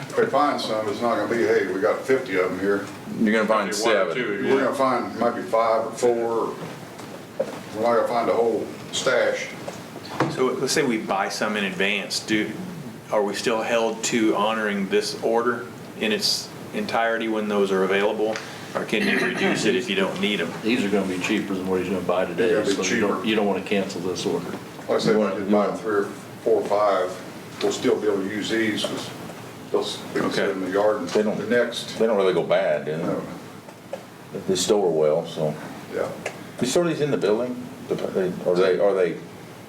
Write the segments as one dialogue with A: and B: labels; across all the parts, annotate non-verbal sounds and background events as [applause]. A: If we find some, it's not gonna be, hey, we got 50 of them here.
B: You're gonna find
C: Maybe one or
B: seven.
C: two,
A: We're
C: yeah.
A: gonna find maybe five or four, or we're not gonna find a whole stash.
C: So let's say we buy some in advance, do, are we still held to honoring this order in its entirety when those are available? Or can you reduce it if you don't need them?
D: These are gonna be cheaper than what he's gonna buy
A: They're
D: today,
A: gonna be
D: so you don't,
A: cheaper.
D: you don't wanna cancel this order.
A: Like I said,
B: You
A: we
B: want-
A: could
B: you
A: buy
B: want-
A: three or four or five, we'll still be able to use these, because they'll, s- we can sit
C: Okay.
A: in the yard and
B: They don't-
A: the next,
B: They don't really go bad, do
A: no,
B: they? They store well, so.
A: yeah.
B: You store these in the building? The- they- Or they, are they,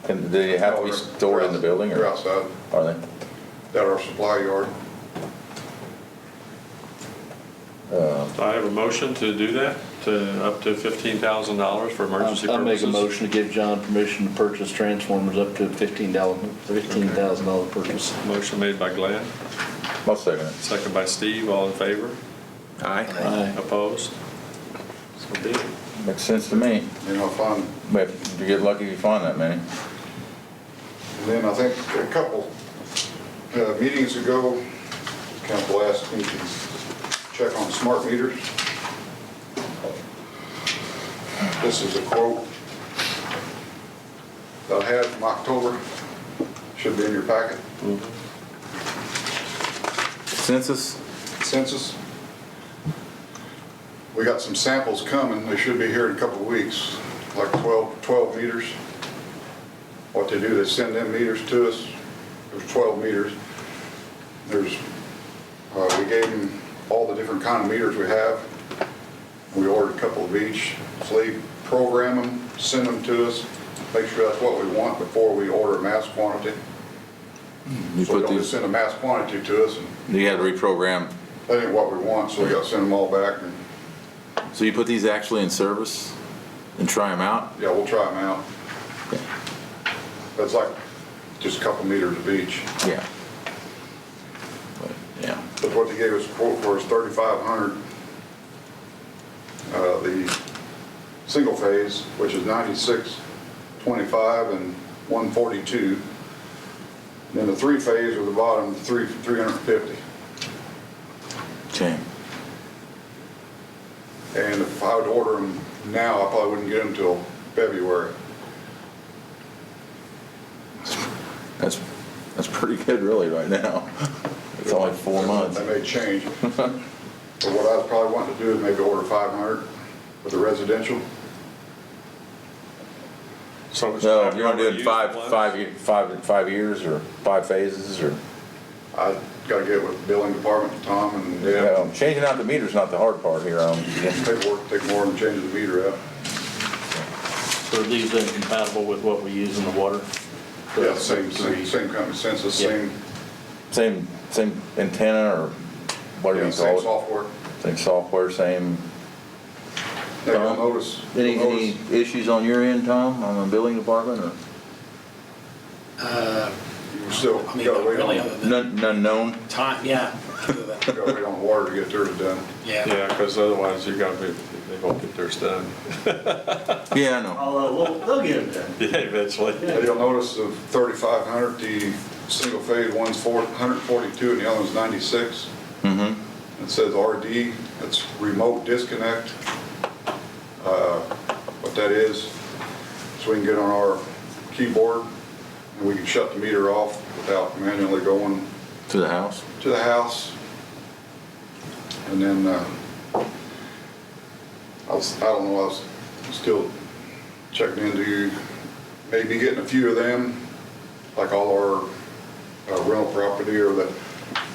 B: can, do they have to be stored in the building
A: They're
B: or
A: outside,
B: are they?
A: at our supply yard.
E: Do I have a motion to do that, to up to $15,000 for emergency
D: I make a
E: purposes?
D: motion to give John permission to purchase transformers up to fifteen dollar, fifteen thousand dollar purchase.
E: Motion made by Glenn,
B: I'll second it.
E: second by Steve, all in favor?
C: Aye.
D: Aye.
E: Opposed? So be it.
B: Makes sense to me.
A: You know, if I'm
B: But you get lucky if you find that many.
A: And then I think a couple uh, meetings ago, council asked me to check on smart meters. This is a quote that I had from October, should be in your packet,
B: Census?
A: census. We got some samples coming, they should be here in a couple of weeks, like 12, 12 meters. What they do, they send them meters to us, there's 12 meters. There's, uh, we gave them all the different kind of meters we have. We ordered a couple of each, so they program them, send them to us, make sure that's what we want before we order a mass quantity.
B: You
A: So
B: put
A: don't just
B: these,
A: send a mass quantity to us and
B: you had to reprogram.
A: that ain't what we want, so we gotta send them all back and
B: So you put these actually in service and try them out?
A: Yeah, we'll try them out.
B: Okay.
A: That's like just a couple meters of each.
B: Yeah. But, Yeah.
A: But what they gave us a quote for is thirty-five hundred. Uh, the single phase, which is ninety-six, twenty-five, and one forty-two. Then the three phase with the bottom, three, three hundred and fifty.
B: Okay.
A: And if I would order them now, I probably wouldn't get them till February.
B: That's, that's pretty good really right now. It's only four months.
A: They may change. But what I was probably wanting to do is maybe order five hundred for the residential.
E: So
B: No, you're not doing five, five, ye- five, five years or five phases or,
A: I gotta get with the billing department, Tom, and
B: you
A: Deb,
B: know, changing out the meter's not the hard part here. um,
A: paperwork, take more and change the meter out.
D: So are these incompatible with what we use in the water?
A: Yeah, same, same,
D: Three.
A: same company, census,
D: Yeah.
A: same,
B: Same, same antenna or
A: yeah,
B: whatever you
A: same
B: call it.
A: software.
B: Same software, same.
A: Now, you'll
B: Tom?
A: notice,
B: Any,
A: you'll
B: any
A: notice,
B: issues on your end, Tom, on the building department or?
F: Uh,
A: you still
F: I mean,
A: gotta wait on,
F: really,
A: you
F: other than
B: None, none known?
F: time,
A: [laughs]
F: yeah. other than-
A: gotta wait on water to get theirs done.
F: Yeah.
E: Yeah, because otherwise you gotta be, they won't get theirs done.
B: Yeah, I know.
G: I'll, uh, we'll, they'll get it done.
E: [laughs] Yeah, [laughs] eventually.
A: And you'll notice of thirty-five hundred, the single phase, one's four, hundred forty-two, and the other one's ninety-six.
B: Mm-hmm.
A: It says RD, that's remote disconnect. Uh, What that is, so we can get on our keyboard and we can shut the meter off without manually going
B: To the house?
A: to the house. And then, uh, I was, I don't know, I was still checking into maybe getting a few of them, like all our uh, rental property or the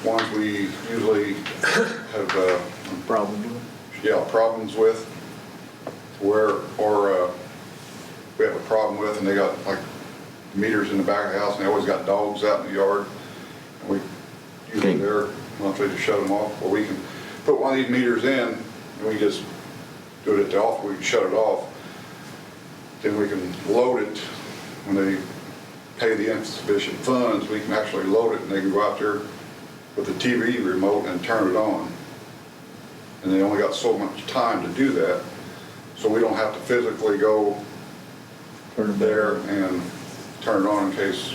A: ones we usually have, uh,
D: Probably.
A: yeah, problems with, where, or uh, we have a problem with, and they got like meters in the back of the house, and they always got dogs out in the yard, and we usually
B: Okay.
A: there, monthly to shut them off, or we can put one of these meters in, and we just do it at the off, we can shut it off, then we can load it, when they pay the insufficient funds, we can actually load it, and they can go out there with the TV remote and turn it on and they only got so much time to do that, so we don't have to physically go there and turn it on in case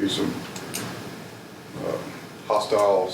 A: be some uh, hostile